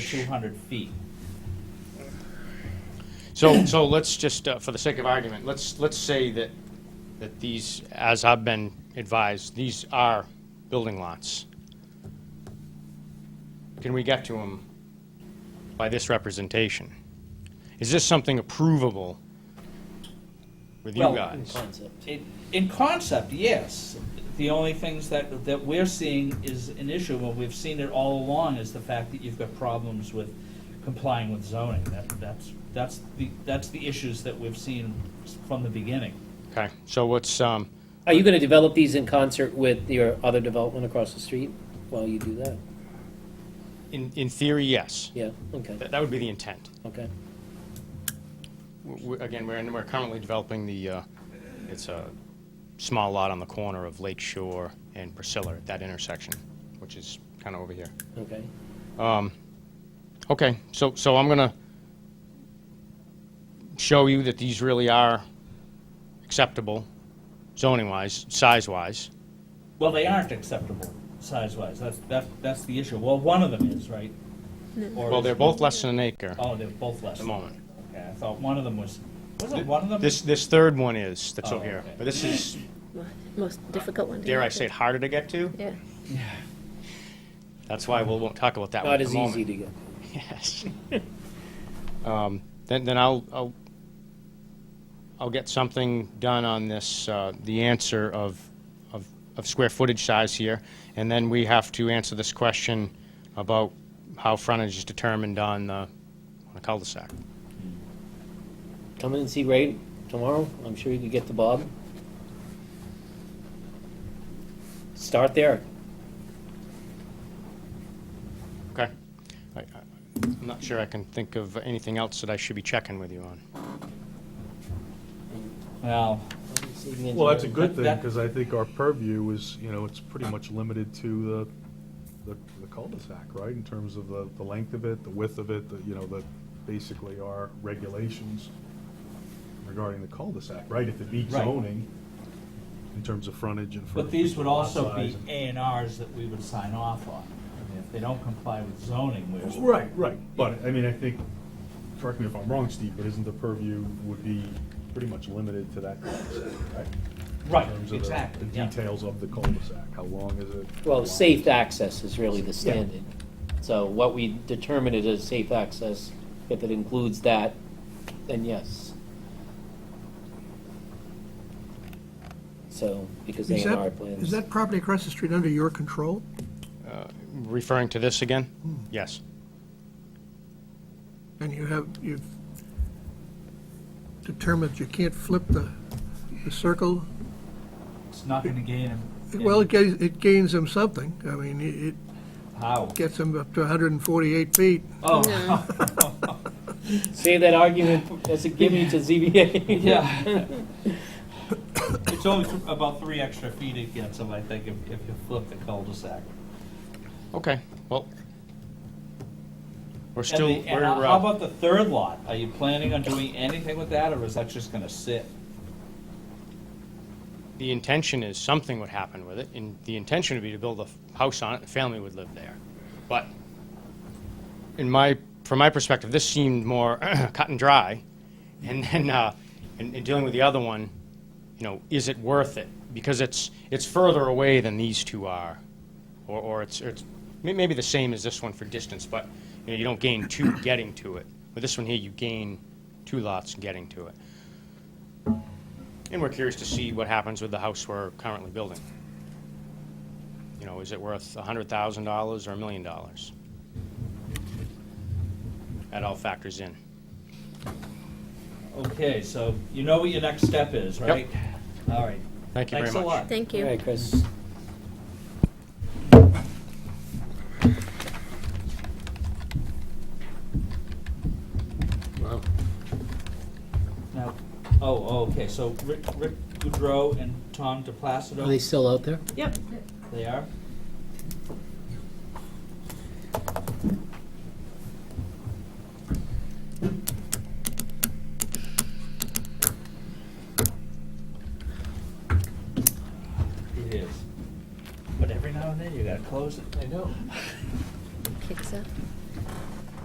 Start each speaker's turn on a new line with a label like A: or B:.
A: two hundred feet.
B: So, so let's just, uh, for the sake of argument, let's, let's say that, that these, as I've been advised, these are building lots. Can we get to them by this representation? Is this something approvable with you
A: Well,
B: guys?
A: It- In concept, yes. The only things that, that we're seeing is an issue, and we've seen it all along, is the fact that you've got problems with complying with zoning. That, that's, that's the, that's the issues that we've seen from the beginning.
B: Okay, so what's, um,
C: Are you gonna develop these in concert with your other development across the street while you do that?
B: in, in theory, yes.
C: Yeah, okay,
B: That, that would be the intent.
C: okay.
B: W- w- Again, we're, in- we're currently developing the, uh, it's a small lot on the corner of Lake Shore and Priscilla, at that intersection, which is kind of over here.
C: Okay.
B: Okay, so, so I'm gonna show you that these really are acceptable zoning-wise, size-wise.
A: Well, they aren't acceptable size-wise. That's, that's, that's the issue. Well, one of them is, right? Or
B: Well,
A: is-
B: they're both less than an acre at
A: Oh, they're both less.
B: the moment.
A: Okay, I thought one of them was, wasn't one of them?
B: This, this third one is, that's
A: Oh,
B: over here.
A: okay.
B: But this is,
D: Most difficult one. to
B: dare I
D: get
B: say it,
D: to.
B: harder to get to?
D: Yeah.
B: That's why we won't talk about that one at
C: Not
B: the
C: as
B: moment.
C: easy to get.
B: Yes. Um, Then, then I'll, I'll, I'll get something done on this, uh, the answer of, of, of square footage size here. And then we have to answer this question about how frontage is determined on the, on a cul-de-sac.
C: Come in and see Ray tomorrow, I'm sure you could get to Bob. Start there.
B: Okay? I- I- I'm not sure I can think of anything else that I should be checking with you on.
A: Well,
E: Well, that's a good thing,
A: That-
E: because I think our purview is, you know, it's pretty much limited to the, the the cul-de-sac, right? In terms of the, the length of it, the width of it, the, you know, the, basically our regulations regarding the cul-de-sac, right? If it meets
A: Right.
E: zoning, in terms of frontage and.
A: but
E: frontage
A: these would
E: lot
A: also
E: size
A: be
E: and-
A: A and Rs that we would sign off on. I mean, If they don't comply with zoning, we're.
E: Right, right, but, I mean, I think, correct me if I'm wrong, Steve, but isn't the purview would be pretty much limited to that cul-de-sac, right?
A: Right,
E: In terms of the-
A: exactly,
E: The
A: yeah.
E: details of the cul-de-sac, how long is it?
C: Well,
E: How long-
C: safe access is really the standard. So what we determine it as safe access, if it includes that, then yes. So, because they
F: Is
C: are
F: that,
C: plans.
F: is that property across the street under your control?
B: Referring to this again? Yes.
F: And you have, you've determined you can't flip the, the circle?
A: It's not gonna gain them.
F: Well, it gains, it gains them something. I mean, it it
A: How?
F: gets them up to 148 feet.
A: Oh,
C: Say that argument as a gimme to ZBA.
A: yeah. It's only th- about three extra feet it gets them, I think, if, if you flip the cul-de-sac.
B: Okay, well, we're
A: And
B: still,
A: the, and
B: we're,
A: how how
B: uh,
A: about the third lot? Are you planning on doing anything with that, or is that just gonna sit?
B: the intention is something would happen with it, and the intention would be to build a f- house on it, a family would live there. But in my, from my perspective, this seemed more cut and dry. And then, uh, and, and dealing with the other one, you know, is it worth it? Because it's, it's further away than these two are, or, or it's, or it's may- maybe the same as this one for distance, but, you know, you don't gain two getting to it. With this one here, you gain two lots getting to it. And we're curious to see what happens with the house we're currently building. You know, is it worth $100,000 or a million dollars? That all factors in.
A: Okay, so you know what your next step is, right? All right.
B: Thank you very
A: Thanks a
B: much.
A: lot.
D: Thank
C: All
D: you.
C: right, Chris.
A: Now, oh, oh, okay, so Rick, Rick Goudreau and Tom DePlacido?
C: Are they still out there?
A: Yep. They are? It is. But every now and then you gotta close it. I know.
D: Kicks up.